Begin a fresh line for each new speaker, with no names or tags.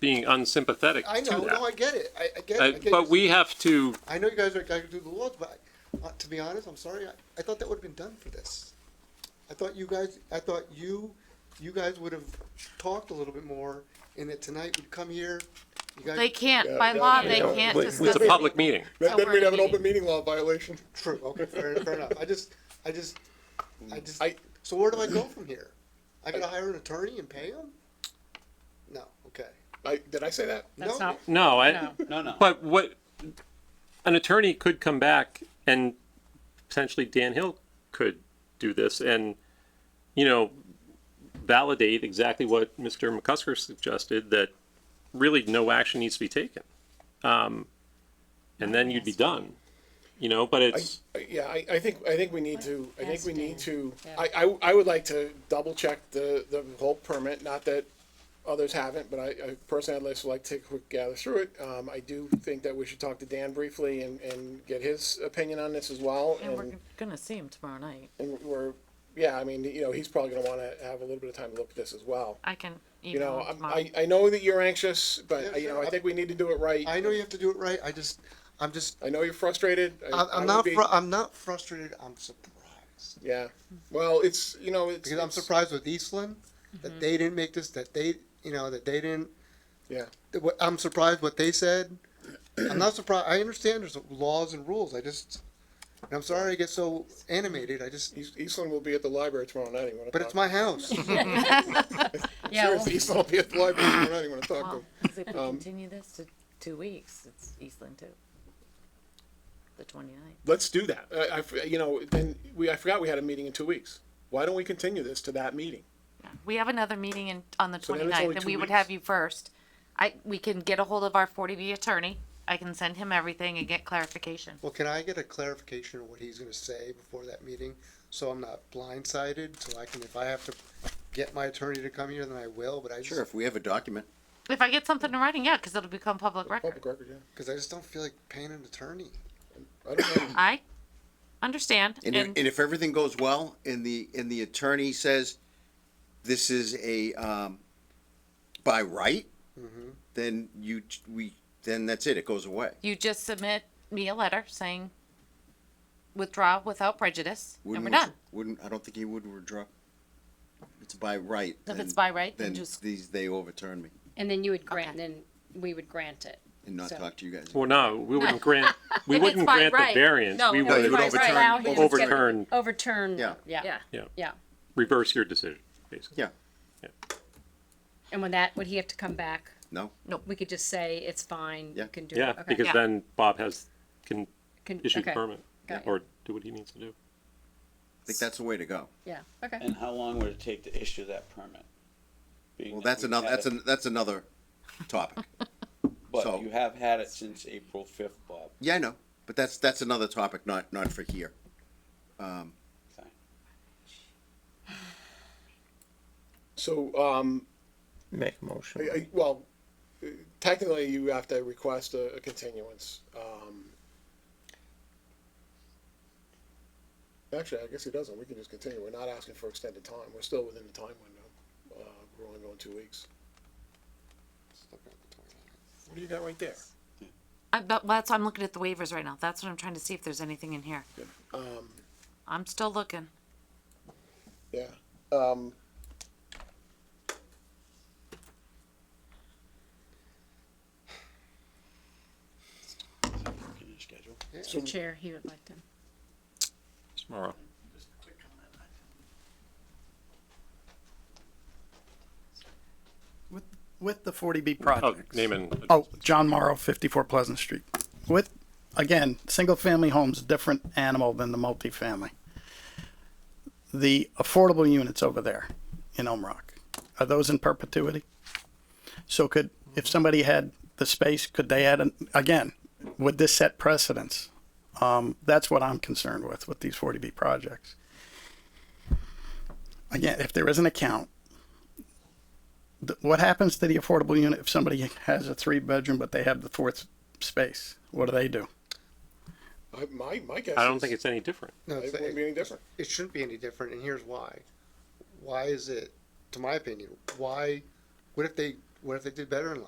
being unsympathetic
I
to
know, no, I
that.
get it, I, I get
Uh,
it. I get
But
it.
we have to,
I know you guys are going to do the laws, but uh, to be honest, I'm sorry, I, I thought that would have been done for this. I thought you guys, I thought you, you guys would have talked a little bit more, and that tonight we'd come here, you
They
guys,
can't, by law, they
Yeah.
can't
Wait,
discuss.
it's a public meeting.
Then then
we're
we'd have an
meeting.
open meeting law violation.
true, okay, fair, fair enough, I just, I just, I just,
I-
so where do I go from here? I gotta hire an attorney and pay him? No, okay.
I, did I say that?
No,
That's not,
No, I,
No.
No, no.
but what, an attorney could come back and potentially Dan Hill could do this and, you know, validate exactly what Mr. McCusker suggested, that really no action needs to be taken. Um, and then you'd be done, you know, but
I,
it's,
I- yeah, I, I think, I think we need to, I think
Ask
we need
Dan.
to,
Yeah.
I, I, I would like to double check the, the whole permit, not that others haven't, but I, I personally, I'd just like to take a quick gather through it. Um, I do think that we should talk to Dan briefly and, and get his opinion on this as well.
And we're gonna see him tomorrow night.
And we're, yeah, I mean, you know, he's probably gonna wanna have a little bit of time to look at this as well.
I can
You know,
email him
I'm-
tomorrow.
I, I know that you're anxious,
Yeah,
but, you know,
sure.
I think we need to do it right.
I know you have to do it right, I just, I'm just,
I know you're frustrated.
I'm,
I
I'm
would
not,
be-
fru- I'm not frustrated, I'm surprised.
Yeah, well, it's, you know, it's.
because I'm
it's-
surprised with Eastland that they didn't make this. That they, you know, that they didn't.
Yeah.
that what- I'm surprised what they said. I'm not surprised. I understand there's laws and rules. I just, and I'm sorry I get so animated. I just,
East- Eastland will be at the library tomorrow night. You want to
but it's my house.
yeah, well,
Seriously, Eastland will be at the library tomorrow night. You want to talk to
Well,
him?
'cause if we
Um,
continue this to two weeks, it's Eastland too. The twenty-ninth.
Let's do that. I, I f- you know, then we, I forgot we had a meeting in two weeks. Why don't we continue this to that meeting?
We have another meeting in, on the
So then it's only
twenty-ninth, and
two
we would
weeks.
have you first. I, we can get a hold of our forty B attorney. I can send him everything and get clarification.
well, can I get a clarification of what he's going to say before that meeting, so I'm not blindsided? So I can, if I have to get my attorney to come here, then I will. But I
Sure,
just,
if we have a document.
If I get something in writing, yeah, because it'll become public record.
Public record, yeah.
because I just don't feel like paying an attorney.
I don't know.
I understand,
And, if-
and
and if everything goes well and the, and the attorney says this is a, um, by right, then you, we, then that's it. It goes away.
you just submit me a letter saying withdraw without prejudice, and
Wouldn't
we're
withdraw-
done.
Wouldn't, I don't think he would withdraw. It's by right.
If it's
then-
by right, then
Then
just-
these, they overturn me
And then you would grant, then we would grant it.
and not
So-
talk to you guys.
well, no, we wouldn't grant, we
If it's
wouldn't
by
grant the
right,
variance.
no,
We
no,
it
would
would
Right, right.
overturn-
Allow him to get-
overturn.
Overturn.
Yeah.
Yeah,
Yeah.
yeah.
reverse your decision, basically.
Yeah,
And when that, would he have to come back?
no,
We could just say, it's fine,
Yeah.
you can do it.
Yeah,
Okay.
because
Yeah.
then Bob has, can
Can-
issue the
okay.
permit
Got you.
or do what he needs to do.
I think that's the way to go.
Yeah, okay.
And
And how long would it take to issue that permit? Being
Well,
that
that's
we've
another,
had
that's,
it-
an that's another topic. so-
But you have had it since April fifth, Bob.
Yeah, I know, but that's, that's another topic, not, not for here.
Okay.
So, um,
Make a motion.
I- I- well, technically you have to request a, a continuance. Um, actually, I guess he doesn't. We can just continue. We're not asking for extended time. We're still within the time window. Uh, we're only going two weeks. What do you got right there?
I, but that's I'm looking at the waivers right now. That's what I'm trying to see if there's anything in here.
Um,
I'm still looking.
yeah. Um,
Can you schedule?
The chair, he would like to.
Tomorrow.
With the 40B
Oh,
project.
name and.
Oh, John Morrow, 54 Pleasant Street. With, again, single-family homes, different animal than the multifamily. The affordable units over there in Elm Rock, are those in perpetuity? So could, if somebody had the space, could they add, an again, would this set precedence? Um, That's what I'm concerned with, with these 40B projects. Again, if there is an account, th- what happens to the affordable unit if somebody has a three bedroom but they have the fourth space? What do they do?
I, my, my guess
I don't
is
think it's any different.
No,
it
it's-
wouldn't be any different.
it shouldn't be any different, and here's why. Why is it, to my opinion, why? What if they? What if they did better in life?